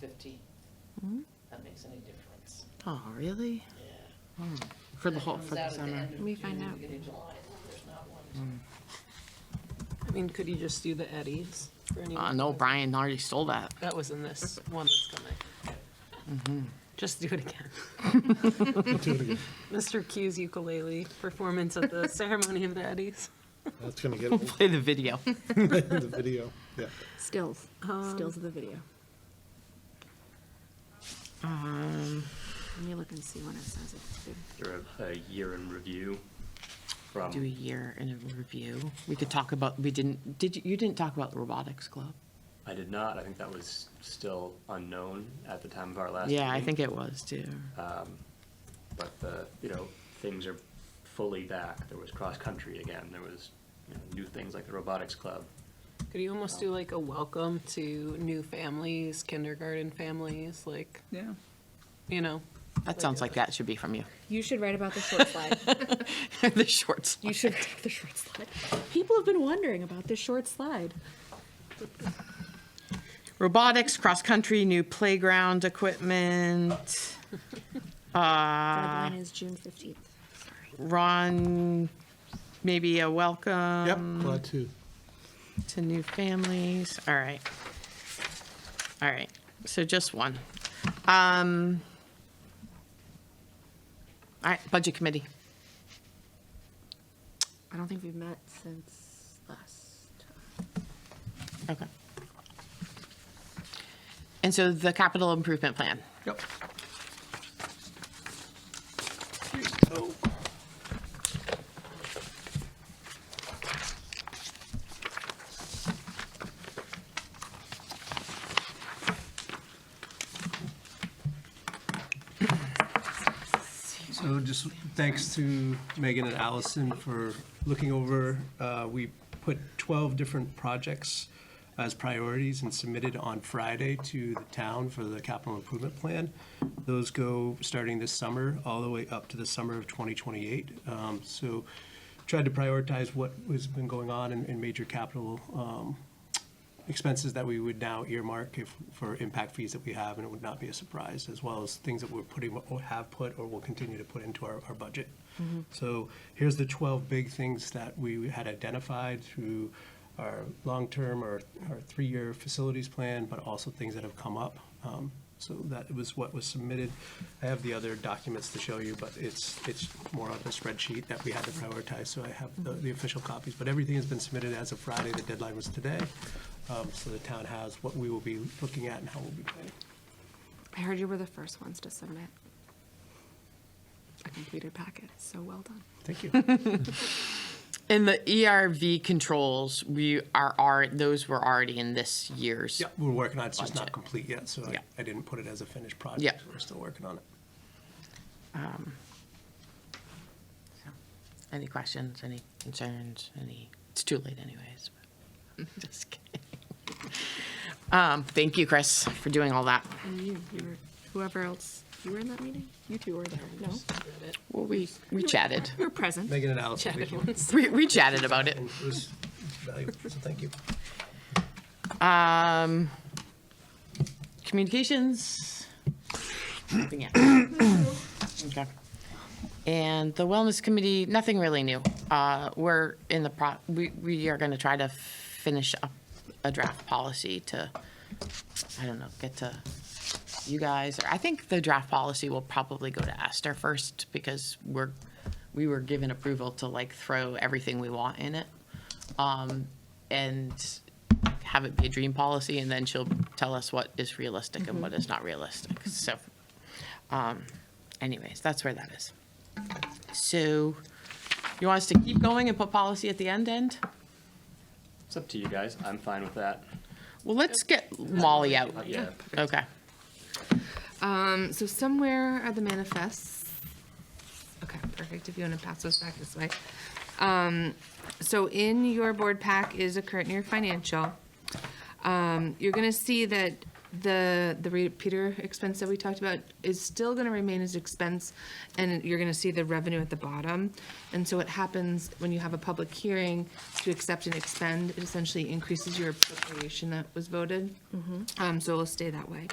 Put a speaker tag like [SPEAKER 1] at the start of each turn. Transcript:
[SPEAKER 1] fifteen.
[SPEAKER 2] Hmm?
[SPEAKER 1] That makes any difference,
[SPEAKER 3] Oh, really? Hmm.
[SPEAKER 1] yeah.
[SPEAKER 3] For the
[SPEAKER 1] That
[SPEAKER 3] whole,
[SPEAKER 1] comes
[SPEAKER 3] for the
[SPEAKER 1] out at
[SPEAKER 3] summer?
[SPEAKER 1] end of
[SPEAKER 4] Let me
[SPEAKER 1] June,
[SPEAKER 4] find out.
[SPEAKER 1] beginning of July, and there's not one.
[SPEAKER 2] I mean, could you just do the Eddies for anyone?
[SPEAKER 3] Uh, no, Brian already stole that.
[SPEAKER 2] That was in this one that's coming. Just do it again. Mr. Q's ukulele performance at the ceremony of the Eddies.
[SPEAKER 5] That's gonna get old,
[SPEAKER 3] Play the video.
[SPEAKER 5] the video, yeah.
[SPEAKER 4] Stills, stills of the video.
[SPEAKER 3] Um,
[SPEAKER 4] Let me look and see when it says it's due.
[SPEAKER 6] Or a, a year in review from,
[SPEAKER 3] Do a year in a review. We could talk about, we didn't, did you, you didn't talk about the robotics club?
[SPEAKER 6] I did not, I think that was still unknown at the time of our last meeting.
[SPEAKER 3] Yeah, I think it was too.
[SPEAKER 1] Uh,
[SPEAKER 6] But the, you know, things are fully back. There was cross-country again, there was, you know, new things like the robotics club.
[SPEAKER 2] Could you almost do like a welcome to new families, kindergarten families, like,
[SPEAKER 7] Yeah.
[SPEAKER 2] you know?
[SPEAKER 3] That sounds like that should be from you.
[SPEAKER 4] You should write about the short slide.
[SPEAKER 3] The shorts.
[SPEAKER 4] You should write about the short slide. People have been wondering about this short slide.
[SPEAKER 3] Robotics, cross-country, new playground equipment.
[SPEAKER 4] Deadline is June fifteenth.
[SPEAKER 3] Ron, maybe a welcome.
[SPEAKER 5] Yep, glad to.
[SPEAKER 3] to new families, all right. All right, so just one. Um, all right, budget committee,
[SPEAKER 4] I don't think we've met since last.
[SPEAKER 3] okay. And so the capital improvement plan,
[SPEAKER 5] Yep.
[SPEAKER 8] So just thanks to Megan and Allison for looking over. Uh, We put 12 different projects as priorities and submitted on Friday to the town for the capital improvement plan. Those go starting this summer, all the way up to the summer of 2028. Um, So tried to prioritize what has been going on in in major capital um, expenses that we would now earmark if, for impact fees that we have, and it would not be a surprise, as well as things that we're putting, or have put, or will continue to put into our, our budget. So here's the 12 big things that we had identified through our long-term or, our three-year facilities plan, but also things that have come up. Um, So that was what was submitted. I have the other documents to show you, but it's, it's more on the spreadsheet that we had to prioritize, so I have the, the official copies. But everything has been submitted as of Friday, the deadline was today. Um, So the town has what we will be looking at and how we'll be planning.
[SPEAKER 4] I heard you were the first ones to submit a completed packet, so well done.
[SPEAKER 8] Thank you.
[SPEAKER 3] and the ERV controls, we are, are, those were already in this year's.
[SPEAKER 8] Yeah, we're working on it, it's just not
[SPEAKER 3] Budget.
[SPEAKER 8] complete yet, so I-
[SPEAKER 3] Yeah.
[SPEAKER 8] I didn't put it as a finished project.
[SPEAKER 3] Yeah.
[SPEAKER 8] We're still working on it.
[SPEAKER 3] Any questions, any concerns, any, it's too late anyways. but- Just kidding. Um, thank you, Chris, for doing all that.
[SPEAKER 4] And you, you were, whoever else, you were in that meeting? You two were there, no?
[SPEAKER 3] Well, we, we chatted.
[SPEAKER 4] You were present.
[SPEAKER 8] Megan and Allison, thank you.
[SPEAKER 3] We, we chatted about it.
[SPEAKER 8] And It was valuable, so thank you.
[SPEAKER 3] Communications. Nothing yet. Okay. And the wellness committee, nothing really new. Uh, we're in the pro, we, we are gonna try to finish up a draft policy to, I don't know, get to you guys. Or I think the draft policy will probably go to Esther first because we're, we were given approval to like throw everything we want in it. Um, and have it be a dream policy, and then she'll tell us what is realistic and what is not realistic. So, um, anyways, that's where that is. So, you want us to keep going and put policy at the end end?
[SPEAKER 6] It's up to you guys, I'm fine with that.
[SPEAKER 3] Well, let's get Molly out.
[SPEAKER 6] Yeah,
[SPEAKER 3] Okay.
[SPEAKER 9] Um, so somewhere are the manifests. Okay, perfect, if you wanna pass those back this way. Um, so in your board pack is a current year financial. Um, you're gonna see that the, the repeater expense that we talked about is still gonna remain as expense, and you're gonna see the revenue at the bottom. And so what happens when you have a public hearing to accept and expend, it essentially increases your appropriation that was voted. Um, so it'll stay that way,